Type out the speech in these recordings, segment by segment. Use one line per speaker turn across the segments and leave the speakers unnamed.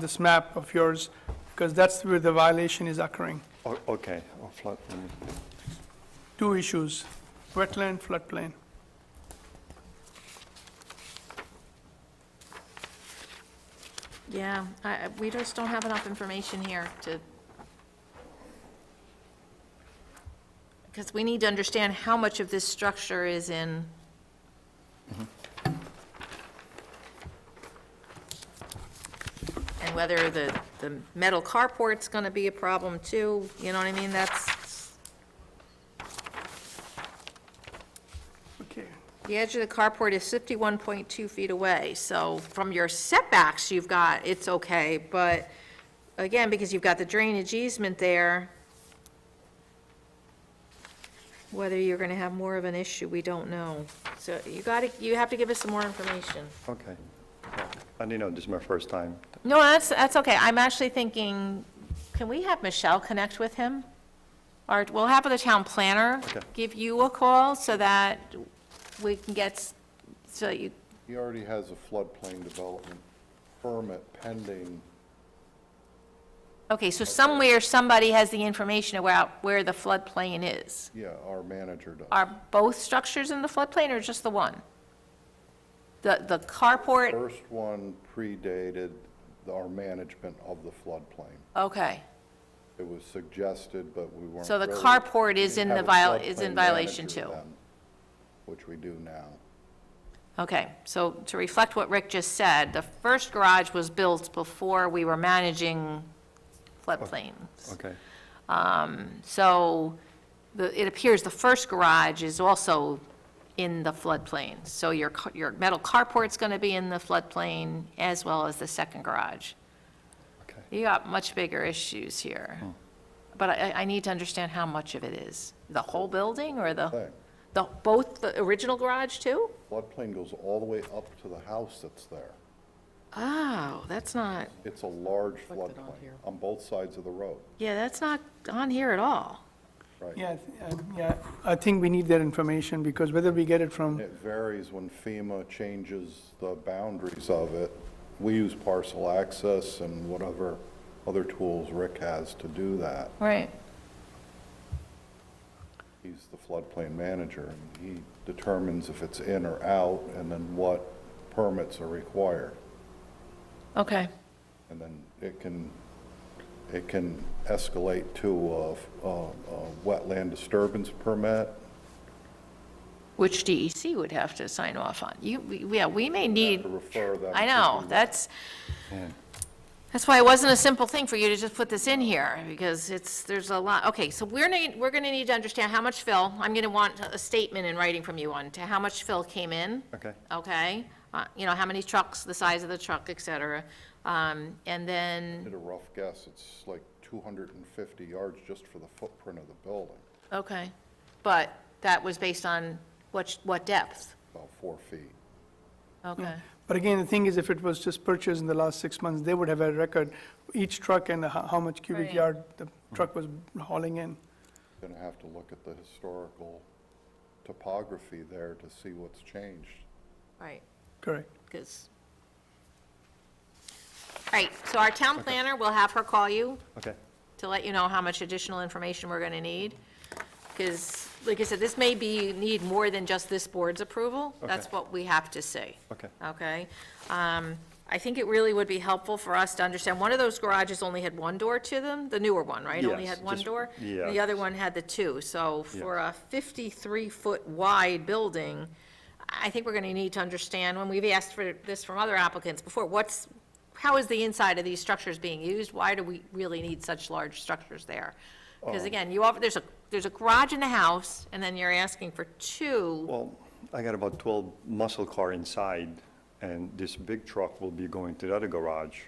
this map of yours, because that's where the violation is occurring.
O- Oh, Okay, or flood, mm.
Two issues, wetland, floodplain.
Yeah, I, I- we just don't have enough information here to, because we need to understand how much of this structure is in, and whether the, the metal carport's gonna be a problem too, you know what I mean? That's,
Okay.
The edge of the carport is 51.2 feet away, so from your setbacks, you've got, it's okay, but again, because you've got the drainage easement there, whether you're gonna have more of an issue, we don't know. So you gotta, you have to give us some more information.
okay. Yeah. And you know, this is my first time.
No, that's, that's okay, I'm actually thinking, can we have Michelle connect with him? Or we'll have the town planner
Okay.
give you a call so that we can get, s- so you,
He already has a floodplain development permit pending.
Okay, so somewhere, somebody has the information about where the floodplain is.
Yeah, our manager does.
Are both structures in the floodplain or just the one? The, the carport,
First one predated our management of the floodplain.
okay.
It was suggested, but we weren't.
So the
really-
carport is
we
in
didn't
the
have a
viol- is in
floodplain
violation
manager
too.
then, Which we do now.
Okay, so to reflect what Rick just said, the first garage was built before we were managing floodplains.
Okay,
So the, it appears the first garage is also in the floodplain. So your, ca- your metal carport's gonna be in the floodplain as well as the second garage.
okay.
You got much bigger issues here. But I, I need to understand how much of it is. The whole building or the,
Thing.
the, both the original garage too?
Floodplain goes all the way up to the house that's there.
Oh, that's not,
It's a large
Looked it on
floodplain
here.
on both sides of the road,
yeah, that's not on here at all.
right?
Yeah, I th- uh, yeah, I think we need that information, because whether we get it from,
It varies when FEMA changes the boundaries of it. We use parcel access and whatever other tools Rick has to do that.
Right.
He's the floodplain manager, and he determines if it's in or out, and then what permits are required.
Okay,
And then it can, it can escalate to a, a a wetland disturbance permit.
which DEC would have to sign off on. You, we- yeah, we may
Have
need,
to refer them
I
to
know,
the-
that's,
Yeah.
that's why it wasn't a simple thing for you to just put this in here, because it's, there's a lot. Okay, so we're need, we're gonna need to understand how much fill, I'm gonna want a statement in writing from you on to how much fill came in.
Okay,
okay? Uh, You know, how many trucks, the size of the truck, et cetera. Um, And then,
Did a rough guess, it's like 250 yards just for the footprint of the building,
okay, but that was based on what, sh- what depth?
about four feet.
Okay,
but again, the thing is, if it was just purchased in the last six months, they would have a record, each truck and how how much cubic
Right.
yard the truck was hauling in.
Gonna have to look at the historical topography there to see what's changed.
right,
Correct.
because. All right, so our town planner, we'll have her call you
okay.
to let you know how much additional information we're going to need. Because, like I said, this may be, need more than just this board's approval. That's
Okay.
what we have to say.
Okay.
Okay? Um, I think it really would be helpful for us to understand, one of those garages only had one door to them, the newer one, right? Only
Yes,
had one
just-
door?
yeah.
The other one had the two. So for a 53-foot wide building, I think we're going to need to understand, when we've asked for this from other applicants before, what's, how is the inside of these structures being used? Why do we really need such large structures there?
Um.
Because again, you offer, there's a, there's a garage in the house, and then you're asking for two.
Well, I got about 12 muscle car inside, and this big truck will be going to the other garage,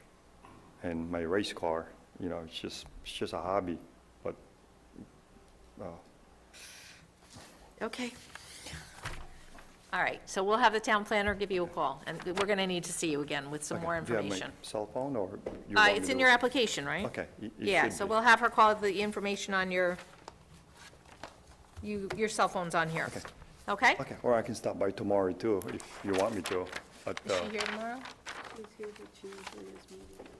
and my race car, you know, it's just, it's just a hobby, but,
Okay. All right, so we'll have the town planner give you a call, and we're going to need to see you again with some
okay.
more
Do you have my
information.
cell phone, or? you
Uh,
want me
It's in
to-
your application, right?
Okay. it- it
Yeah,
should
so
be.
we'll have her call the information on your, you, your cell phone's on here. Okay? Is
Okay, or I can stop by tomorrow, too, if you want me to, but,
she
uh,
here tomorrow?
He's here to choose his meeting.